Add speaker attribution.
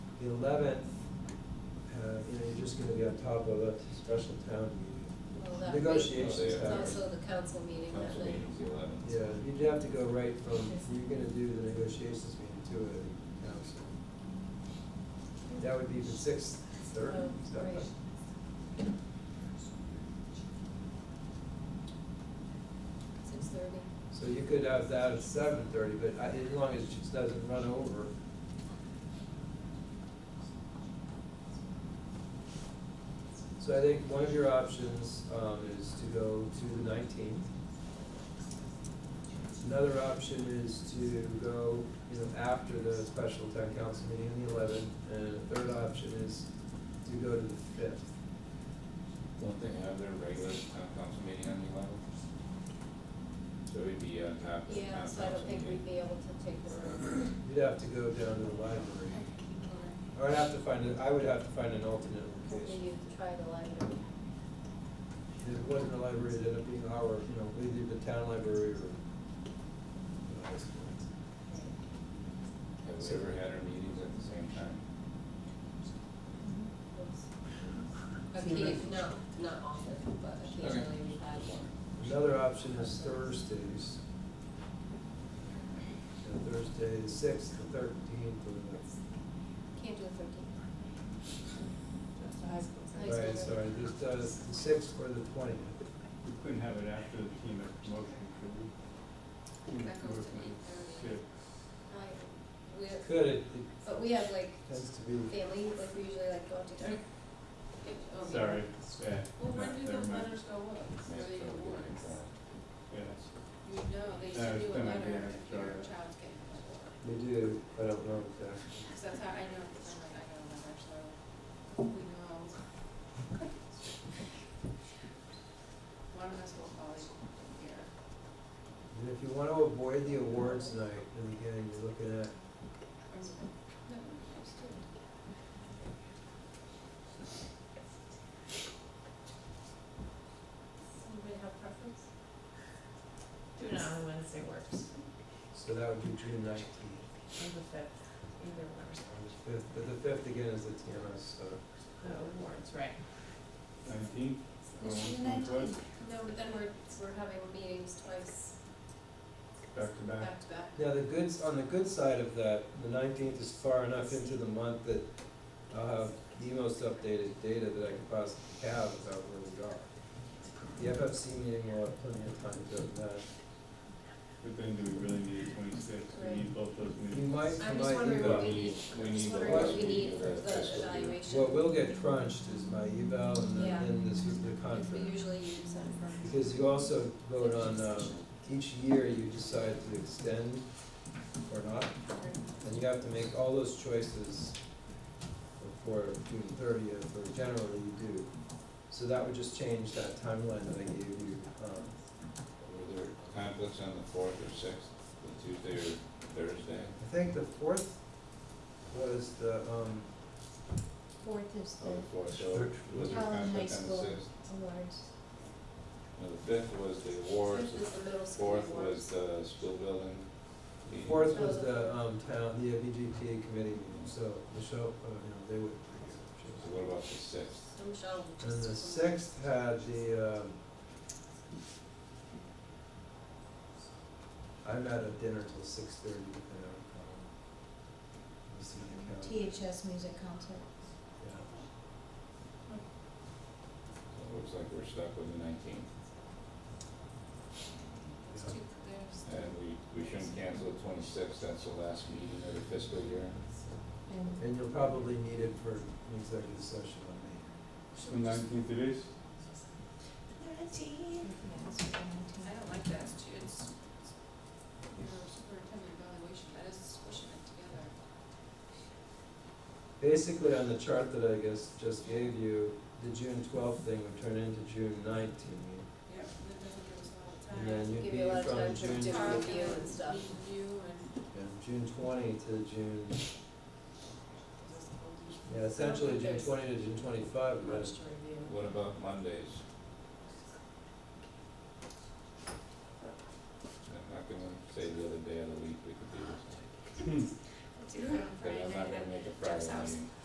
Speaker 1: The eleventh, uh, you know, you're just gonna be on top of a special town meeting.
Speaker 2: Well, that
Speaker 1: Negotiations
Speaker 2: week, It's
Speaker 3: happen.
Speaker 2: also the council meeting that
Speaker 3: Council
Speaker 2: night.
Speaker 3: meeting's the eleventh.
Speaker 1: Yeah, you'd have to go right from, you're gonna do the negotiations meeting to a council. That would be the sixth, third.
Speaker 2: Oh,
Speaker 1: is that
Speaker 2: right.
Speaker 1: right?
Speaker 2: Six thirty.
Speaker 1: So you could have that at seven thirty, but I- as long as it just doesn't run over. So I think one of your options, um, is to go to the nineteenth. Another option is to go, you know, after the special town council meeting on the eleventh, and a third option is to go to the fifth.
Speaker 3: Don't they have their regular town council meeting on the eleventh? So it'd be on top of the town
Speaker 2: Yeah,
Speaker 3: council
Speaker 2: so I don't think we'd be
Speaker 3: meeting.
Speaker 2: able to take this.
Speaker 1: You'd have to go down to the library, or I'd have to find, a- I would have to find an alternate location.
Speaker 2: Hopefully you'd try the library.
Speaker 1: If it wasn't a library, it'd end up being our, you know, either the town library or the high school.
Speaker 3: Have we ever had our meetings at the same time?
Speaker 2: Okay, not, not often, but occasionally we have one.
Speaker 1: Another option is Thursdays. Uh, Thursday, the sixth, the thirteenth, or
Speaker 2: Can't do the thirteenth.
Speaker 4: That's the high school.
Speaker 1: the, right, sorry, just, uh, the sixth or the twentieth.
Speaker 5: We couldn't have it after the team of promotion, could we? Team of
Speaker 2: That goes to
Speaker 5: promotion,
Speaker 2: 8:30.
Speaker 5: yeah.
Speaker 2: We have,
Speaker 1: Could, it, it
Speaker 2: but we have like
Speaker 1: tends to be,
Speaker 2: family, like we usually like go out to dinner. Oh,
Speaker 5: Sorry, yeah.
Speaker 4: Well,
Speaker 5: no,
Speaker 4: when do
Speaker 5: never
Speaker 4: the
Speaker 5: mind.
Speaker 4: letters go up?
Speaker 3: Yeah,
Speaker 4: Or they
Speaker 3: so
Speaker 4: go
Speaker 3: we're going
Speaker 4: once?
Speaker 3: to-
Speaker 5: Yes.
Speaker 4: You know, they used
Speaker 5: No,
Speaker 4: to
Speaker 5: it's
Speaker 4: do a
Speaker 5: been a
Speaker 4: letter
Speaker 5: year,
Speaker 4: if your
Speaker 5: sorry.
Speaker 4: child's getting before.
Speaker 1: we do, I don't know exactly.
Speaker 4: Because that's how, I know, because I'm like, I know a letter, so we know. One of us will probably hear.
Speaker 1: And if you wanna avoid the awards night, then again, you're looking at
Speaker 4: No, it's two.
Speaker 2: Anybody have preference?
Speaker 6: Do it on a Wednesday works,
Speaker 1: So that would be June nineteenth
Speaker 6: or the fifth, either one or
Speaker 1: or the fifth, but the fifth again is the TMS, so.
Speaker 6: the awards, right?
Speaker 5: Nineteenth?
Speaker 2: It's the
Speaker 5: Going once,
Speaker 2: No, but then we're, we're having meetings twice
Speaker 5: Back to back?
Speaker 2: back to back.
Speaker 1: Now, the goods, on the good side of that, the nineteenth is far enough into the month that I'll have the most updated data that I could possibly have about where we are. The FFC meeting will have plenty of time to go to that.
Speaker 5: But then do we really need twenty-six? We need both those
Speaker 1: You
Speaker 5: meetings.
Speaker 1: might,
Speaker 2: I'm
Speaker 1: you
Speaker 2: just
Speaker 1: might
Speaker 2: wondering
Speaker 1: leave
Speaker 2: what
Speaker 1: out,
Speaker 2: we
Speaker 3: We
Speaker 2: need,
Speaker 3: need- we
Speaker 2: I'm just
Speaker 3: need the
Speaker 2: wondering what
Speaker 3: last
Speaker 2: we need
Speaker 3: meeting
Speaker 2: for
Speaker 3: of the
Speaker 2: the
Speaker 3: fiscal year.
Speaker 2: evaluation.
Speaker 1: what will get crunched is my eval and then,
Speaker 2: Yeah.
Speaker 1: then this is the
Speaker 2: Because we
Speaker 1: contract.
Speaker 2: usually use that for.
Speaker 1: Because you also vote on,
Speaker 2: executive
Speaker 1: um,
Speaker 2: session.
Speaker 1: each year you decide to extend or not, and you have to make all those choices before June thirtieth, or generally you do. So that would just change that timeline that I gave you, um,
Speaker 3: Were there conflicts on the fourth or sixth, the Tuesday or Thursday?
Speaker 1: I think the fourth was the, um,
Speaker 2: Fourth is
Speaker 3: Oh, the fourth, so was there
Speaker 2: Helen High
Speaker 3: conflict on the
Speaker 2: School.
Speaker 3: sixth?
Speaker 2: awards.
Speaker 3: No, the fifth was the awards,
Speaker 2: Fifth is the middle
Speaker 3: the
Speaker 2: school
Speaker 3: fourth
Speaker 2: awards.
Speaker 3: was the school building.
Speaker 1: the
Speaker 3: meeting.
Speaker 1: fourth was the, um, town, the VGPA committee meeting, so Michelle, uh, you know, they would.
Speaker 3: So what about the sixth?
Speaker 2: So Michelle will just.
Speaker 1: And the sixth had the, um, I'm out of dinner till six thirty, and I'm, um, listening to count,
Speaker 2: THS music concert.
Speaker 1: yeah.
Speaker 3: So it looks like we're stuck with the nineteenth,
Speaker 4: It's
Speaker 1: Yeah.
Speaker 4: two, there's.
Speaker 3: and we, we shouldn't cancel the twenty-sixth, that's the last meeting of the fiscal year.
Speaker 1: And you'll probably need it for an executive session on me.
Speaker 5: The nineteenth it is?
Speaker 4: I don't like that, it's, it's, you know, superintendent evaluation, that is squishing it together.
Speaker 1: Basically, on the chart that I guess just gave you, the June twelfth thing would turn into June nineteenth.
Speaker 4: Yep, that doesn't give us a lot of time.
Speaker 1: And then you'd
Speaker 2: Give
Speaker 1: be
Speaker 2: you a lot of
Speaker 1: from
Speaker 2: time to
Speaker 1: June,
Speaker 2: do
Speaker 1: tw-
Speaker 2: it.
Speaker 1: and
Speaker 2: review and stuff.
Speaker 4: Review and.
Speaker 1: June twenty to June, yeah, essentially June twenty to June twenty-five, but
Speaker 6: Much to review.
Speaker 3: What about Mondays? I'm not gonna say the other day of the week we could do this.
Speaker 4: do it on
Speaker 3: Cause I'm not
Speaker 4: Friday night.
Speaker 3: gonna make a
Speaker 4: Jeff's
Speaker 3: Friday
Speaker 4: house.
Speaker 3: meeting.